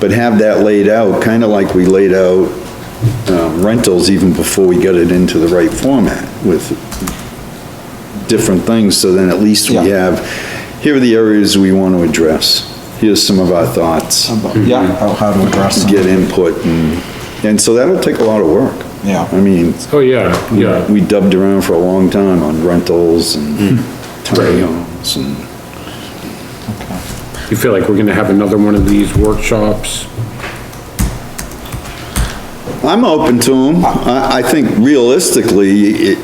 but have that laid out, kind of like we laid out um, rentals even before we got it into the right format with different things, so then at least we Yeah. have, here are the areas we want to address. Here's some of our thoughts, Yeah, how- how to address them. get input, and, and so that'll take a lot of work. Yeah. I mean, Oh, yeah, yeah. we dubbed around for a long time on rentals and Hmm. tiny homes and You feel like we're gonna have another one of these workshops? I'm open to them. I, I think realistically, it,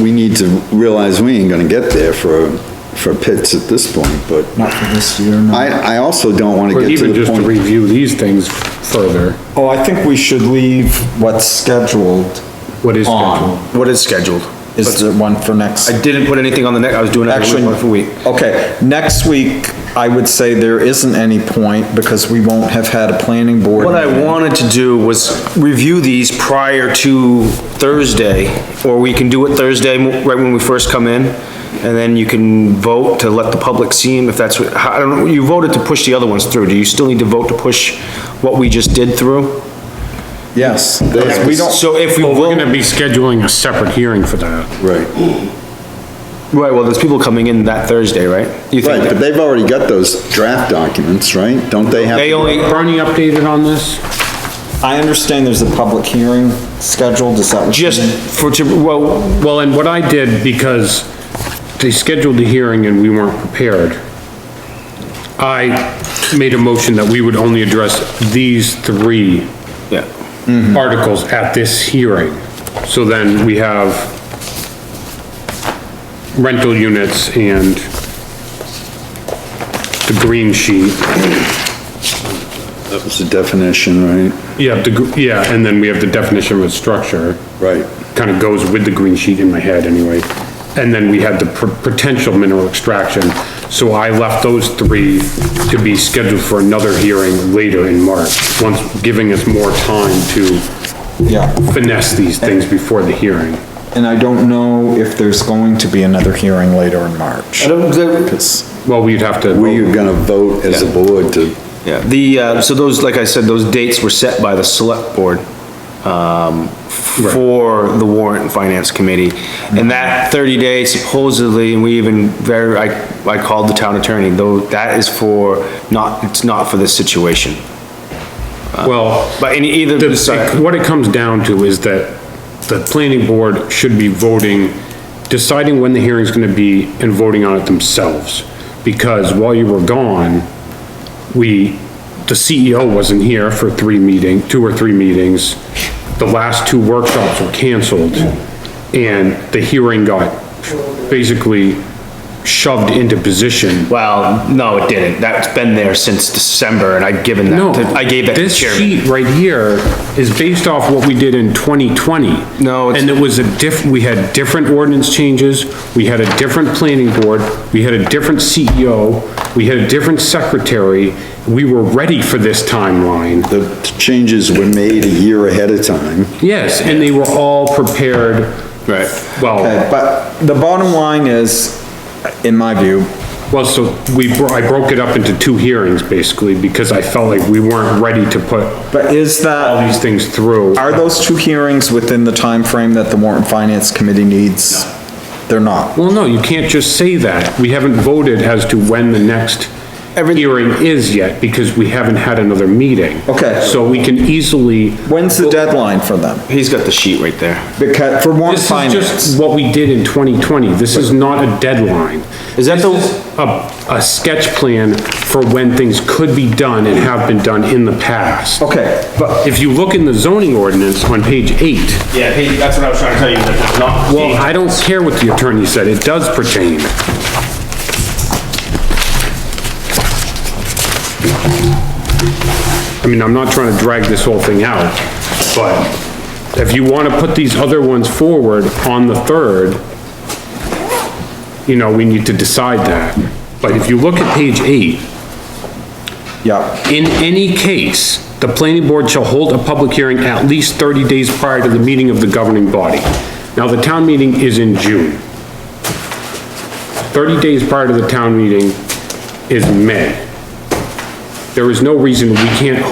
we need to realize we ain't gonna get there for, for pits at this point, but Not for this year, no. I, I also don't wanna Or get to even the just to point. review these things further? Oh, I think we should leave what's scheduled. What is on. scheduled? What is scheduled? Is the one for next? I didn't put anything on the neck, I was doing it Actually, week by week. okay, next week, I would say there isn't any point because we won't have had a planning board. What I wanted to do was review these prior to Thursday, or we can do it Thursday, mo- right when we first come in, and then you can vote to let the public see them, if that's what, how- I don't, know, you voted to push the other ones through, do you still need to vote to push what we just did through? Yes, because we don't, So if we Well, we're vote, gonna be scheduling a separate hearing for that. Right, right, well, there's people coming in that Thursday, right? You right, but think, they've already got those draft documents, right? Don't they have? they only, Bernie updated on this? I understand there's a public hearing scheduled, is that what? you just mean? for, to, well, Well, and what I did, because they scheduled the hearing and we weren't prepared, I made a motion that we would only address these three yeah. articles at this hearing. So then we have rental units and the green sheet. That was the definition, right? Yeah, the, gr- yeah, and then we have the definition of a structure. Right. Kind of goes with the green sheet in my head anyway. And then we had the pr- potential mineral extraction. So I left those three to be scheduled for another hearing later in March, once giving us more time to Yeah, finesse these things before the hearing. and I don't know if there's going to be another hearing later in March. I don't, there- It's- Well, we'd have to. Were you gonna vote as a board to, Yeah, the, uh, so those, like I said, those dates were set by the select board, um, for the warrant and finance committee. And that thirty day supposedly, and we even very, I, I called the town attorney, though, that is for, not, it's not for this situation. Well, But in either, the- sorry, what it comes down to is that the planning board should be voting, deciding when the hearing's gonna be and voting on it themselves. Because while you were gone, we, the CEO wasn't here for three meeting, two or three meetings. The last two workshops were canceled and the hearing got basically shoved into position well, no, it didn't. That's been there since December and I'd given No. that, to- I gave that to the This chairman. sheet right here is based off what we did in 2020. No, it's- And it was a diff, we had different ordinance changes, we had a different planning board, we had a different CEO, we had a different secretary. We were ready for this timeline. the changes were made a year ahead of time. Yes, and they were all prepared. Right. Well, Okay, But the bottom line is, in my view, well, so we, bro- I broke it up into two hearings basically because I felt like we weren't ready to put but is all that, these things through. are those two hearings within the time frame that the warrant and finance committee needs? They're not. Well, no, you can't just say that. We haven't voted as to when the next hearing is yet, because we haven't had another meeting. Okay. So we can easily, When's the deadline for them? He's got the sheet right there. Because, for warrant this is just finance, what we did in 2020. This is not a deadline. Is that the- This A, a sketch plan for when things could be done and have been done in the past. Okay. But if you look in the zoning ordinance on page eight, Yeah, he- that's what I was trying to tell you, that it's not. well, I don't care what the attorney said, it does pertain. I mean, I'm not trying to drag this whole thing out, but if you want to put these other ones forward on the 3rd, you know, we need to decide that. But if you look at page 8, yeah. in any case, the planning board shall hold a public hearing at least 30 days prior to the meeting of the governing body. Now, the town meeting is in June. 30 days prior to the town meeting is May. There is no reason we can't